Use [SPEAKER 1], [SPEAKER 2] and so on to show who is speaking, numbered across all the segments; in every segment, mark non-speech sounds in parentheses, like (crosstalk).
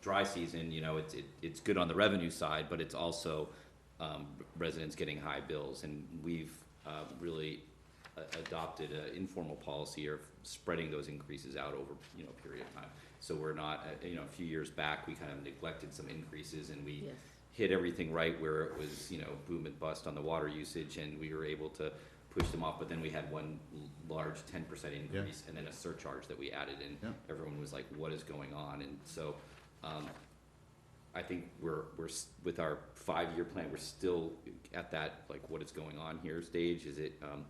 [SPEAKER 1] dry season, you know, it's, it, it's good on the revenue side, but it's also, um, residents getting high bills, and we've, uh, really a- adopted an informal policy of spreading those increases out over, you know, a period of time. So we're not, uh, you know, a few years back, we kind of neglected some increases and we
[SPEAKER 2] Yes.
[SPEAKER 1] hit everything right where it was, you know, boom and bust on the water usage, and we were able to push them off, but then we had one l- large ten percent increase, and then a surcharge that we added, and
[SPEAKER 3] Yeah.
[SPEAKER 1] everyone was like, what is going on, and so, um, I think we're, we're, s- with our five-year plan, we're still at that, like, what is going on here stage, is it, um,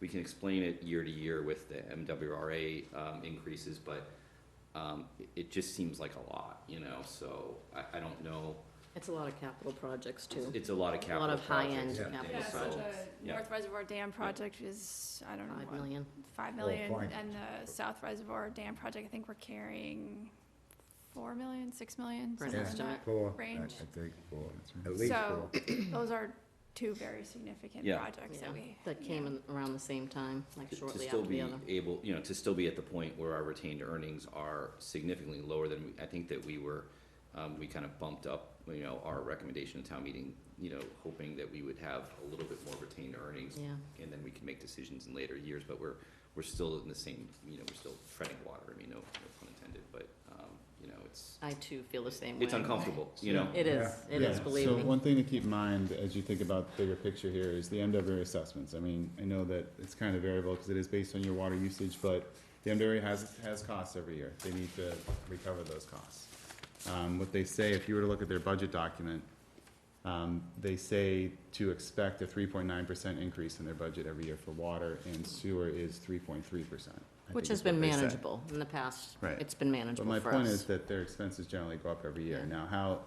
[SPEAKER 1] we can explain it year to year with the MWRA, um, increases, but, um, it, it just seems like a lot, you know, so I, I don't know,
[SPEAKER 2] It's a lot of capital projects too.
[SPEAKER 1] it's- It's a lot of
[SPEAKER 2] A
[SPEAKER 1] capital
[SPEAKER 2] lot of
[SPEAKER 1] projects.
[SPEAKER 2] high-end
[SPEAKER 3] Yeah.
[SPEAKER 2] capital
[SPEAKER 4] Yeah, so
[SPEAKER 2] projects.
[SPEAKER 4] the
[SPEAKER 1] Yeah.
[SPEAKER 4] North Reservoir Dam project is, I don't know,
[SPEAKER 2] Five
[SPEAKER 4] what,
[SPEAKER 2] million.
[SPEAKER 4] five
[SPEAKER 3] Well,
[SPEAKER 4] million,
[SPEAKER 3] fine.
[SPEAKER 4] and the South Reservoir Dam project, I think we're carrying four million, six million,
[SPEAKER 2] For an
[SPEAKER 4] something like
[SPEAKER 2] estimate.
[SPEAKER 4] that.
[SPEAKER 3] Four, I I
[SPEAKER 4] Range.
[SPEAKER 3] think, four.
[SPEAKER 5] At least
[SPEAKER 4] So-
[SPEAKER 5] four.
[SPEAKER 4] (coughs) Those are two very significant
[SPEAKER 1] Yeah.
[SPEAKER 4] projects
[SPEAKER 2] Yeah,
[SPEAKER 4] that we.
[SPEAKER 2] That came in around the same time, like
[SPEAKER 1] To-
[SPEAKER 2] shortly
[SPEAKER 1] To
[SPEAKER 2] after the other.
[SPEAKER 1] still be able, you know, to still be at the point where our retained earnings are significantly lower than, we- I think that we were, um, we kind of bumped up, you know, our recommendation to town meeting, you know, hoping that we would have a little bit more retained earnings,
[SPEAKER 2] Yeah,
[SPEAKER 1] and then we can make decisions in later years, but we're, we're still in the same, you know, we're still treading water, I mean, no, no pun intended, but, um, you know, it's,
[SPEAKER 2] I too feel the same way.
[SPEAKER 1] it's uncomfortable, you know?
[SPEAKER 2] It is,
[SPEAKER 3] Yeah.
[SPEAKER 2] it is,
[SPEAKER 3] Yeah.
[SPEAKER 2] believe
[SPEAKER 5] So
[SPEAKER 2] me.
[SPEAKER 5] one thing to keep in mind as you think about the bigger picture here is the MWA assessments. I mean, I know that it's kind of variable because it is based on your water usage, but the MWA has, has costs every year. They need to recover those costs. Um, what they say, if you were to look at their budget document, um, they say to expect a three point nine percent increase in their budget every year for water and sewer is three point three percent.
[SPEAKER 2] Which has been manageable in the past.
[SPEAKER 5] Right.
[SPEAKER 2] It's been
[SPEAKER 5] But
[SPEAKER 2] manageable
[SPEAKER 5] my
[SPEAKER 2] for
[SPEAKER 5] point is
[SPEAKER 2] us.
[SPEAKER 5] that their expenses generally go up every year.
[SPEAKER 2] Yeah.
[SPEAKER 5] Now, how,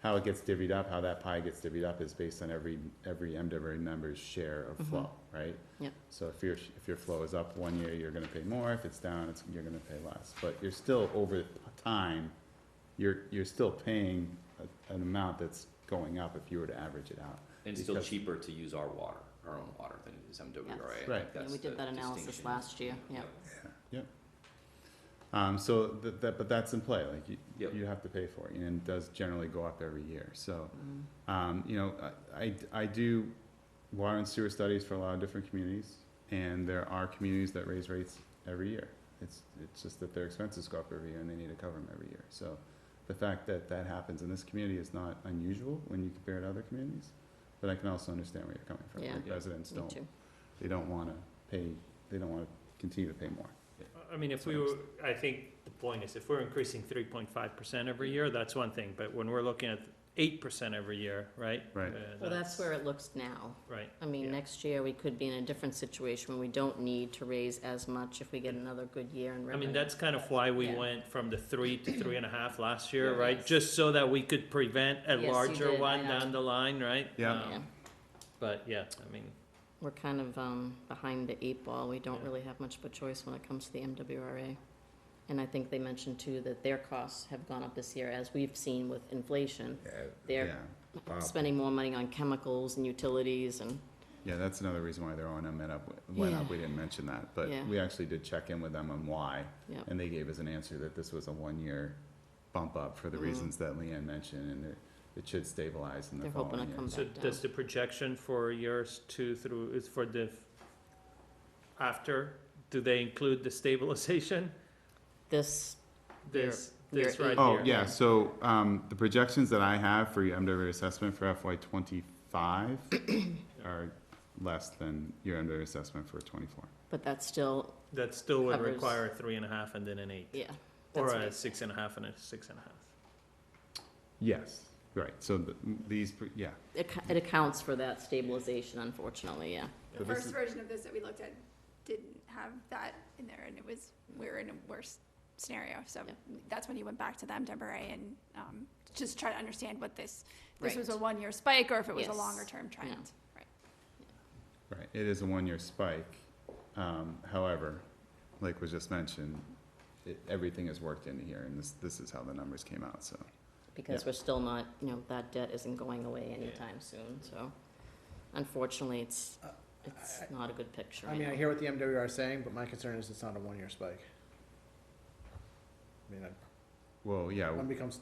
[SPEAKER 5] how it gets divvied up, how that pie gets divvied up is based on every, every MWA member's share of
[SPEAKER 2] Mhm.
[SPEAKER 5] flow, right?
[SPEAKER 2] Yep.
[SPEAKER 5] So if your, if your flow is up one year, you're gonna pay more, if it's down, it's, you're gonna pay less. But you're still, over time, you're, you're still paying a- an amount that's going up if you were to average it out.
[SPEAKER 1] And it's still
[SPEAKER 5] Because-
[SPEAKER 1] cheaper to use our water, our own water than it is MWRA.
[SPEAKER 5] Right.
[SPEAKER 2] Yeah, we did that analysis last year, yeah.
[SPEAKER 5] Um, so that, that, but that's in play, like, you,
[SPEAKER 1] Yep.
[SPEAKER 5] you have to pay for it, and it does generally go up every year, so.
[SPEAKER 2] Mm.
[SPEAKER 5] Um, you know, I, I- I do water and sewer studies for a lot of different communities, and there are communities that raise rates every year. It's, it's just that their expenses go up every year and they need to cover them every year. So the fact that that happens in this community is not unusual when you compare it to other communities, but I can also understand where you're coming from.
[SPEAKER 2] Yeah.
[SPEAKER 5] Like,
[SPEAKER 1] Yeah.
[SPEAKER 5] Residents
[SPEAKER 2] Me
[SPEAKER 5] don't,
[SPEAKER 2] too.
[SPEAKER 5] they don't wanna pay, they don't wanna continue to pay more.
[SPEAKER 6] I mean, if we were, I think the point is, if we're increasing three point five percent every year, that's one thing, but when we're looking at eight percent every year, right?
[SPEAKER 5] Right.
[SPEAKER 6] uh,
[SPEAKER 2] Well, that's where it looks now.
[SPEAKER 6] Right,
[SPEAKER 2] I mean,
[SPEAKER 6] Yeah.
[SPEAKER 2] next year, we could be in a different situation where we don't need to raise as much if we get another good year in
[SPEAKER 6] I
[SPEAKER 2] revenue.
[SPEAKER 6] mean, that's kind of why we
[SPEAKER 2] Yeah.
[SPEAKER 6] went from the three to three and a half last year,
[SPEAKER 2] Yeah.
[SPEAKER 6] right?
[SPEAKER 2] Yes.
[SPEAKER 6] Just so that we could prevent a
[SPEAKER 2] Yes, you
[SPEAKER 6] larger
[SPEAKER 2] did, I
[SPEAKER 6] one
[SPEAKER 2] know.
[SPEAKER 6] down the line, right?
[SPEAKER 5] Yeah.
[SPEAKER 6] Um,
[SPEAKER 2] Yeah.
[SPEAKER 6] But, yeah, I mean,
[SPEAKER 2] We're kind of um, behind the eight ball. We don't
[SPEAKER 6] Yeah.
[SPEAKER 2] really have much of a choice when it comes to the MWRA. And I think they mentioned too that their costs have gone up this year, as we've seen with inflation. They're
[SPEAKER 5] Yeah.
[SPEAKER 3] Wow.
[SPEAKER 2] spending more money on chemicals and utilities and,
[SPEAKER 5] Yeah, that's another reason why their O and M went up, went up, we didn't mention that, but
[SPEAKER 2] Yeah.
[SPEAKER 5] we actually did check in with them on why.
[SPEAKER 2] Yep.
[SPEAKER 5] And they gave us an answer that this was a one-year bump up for the
[SPEAKER 2] Mhm.
[SPEAKER 5] reasons that Leanne mentioned, and it, it should stabilize in the
[SPEAKER 2] They're hoping
[SPEAKER 5] following
[SPEAKER 2] to
[SPEAKER 5] year.
[SPEAKER 2] come-
[SPEAKER 6] so
[SPEAKER 2] back down.
[SPEAKER 6] does the projection for years two through, is for the, after, do they include the stabilization?
[SPEAKER 2] this, Year-
[SPEAKER 6] This,
[SPEAKER 2] year
[SPEAKER 6] this right
[SPEAKER 2] eight.
[SPEAKER 6] here?
[SPEAKER 5] Oh, yeah, so, um, the projections that I have for your MWA assessment for FY twenty-five
[SPEAKER 2] (clears throat)
[SPEAKER 5] are less than your MWA assessment for twenty-four.
[SPEAKER 2] but that's still,
[SPEAKER 6] That still would
[SPEAKER 2] Covers-
[SPEAKER 6] require a three and a half and then an eight,
[SPEAKER 2] yeah.
[SPEAKER 6] or
[SPEAKER 2] that's
[SPEAKER 6] a
[SPEAKER 2] right.
[SPEAKER 6] six and a half and a six and a half.
[SPEAKER 5] Yes, right, so the, these, pr- yeah,
[SPEAKER 2] It ca- it accounts for that stabilization unfortunately, yeah.
[SPEAKER 4] The
[SPEAKER 5] But this
[SPEAKER 4] first
[SPEAKER 5] is-
[SPEAKER 4] version of this that we looked at didn't have that in there, and it was, we were in a worse scenario, so
[SPEAKER 2] Yeah.
[SPEAKER 4] that's when he went back to the MWRA and, um, just try to understand what this, this was a
[SPEAKER 2] Right.
[SPEAKER 4] one-year spike, or if it was a
[SPEAKER 2] Yes.
[SPEAKER 4] longer-term trend, right?
[SPEAKER 5] Right, it is a one-year spike. Um, however, like was just mentioned, it, everything is worked into here, and this, this is how the numbers came out, so.
[SPEAKER 2] because
[SPEAKER 5] Yeah.
[SPEAKER 2] we're still not, you know, that debt isn't going away anytime soon, so unfortunately, it's, it's not a good picture
[SPEAKER 7] I mean, I
[SPEAKER 2] right now.
[SPEAKER 7] hear what the MWR is saying, but my concern is it's not a one-year spike. I mean, I-
[SPEAKER 5] Well, yeah,
[SPEAKER 7] one becomes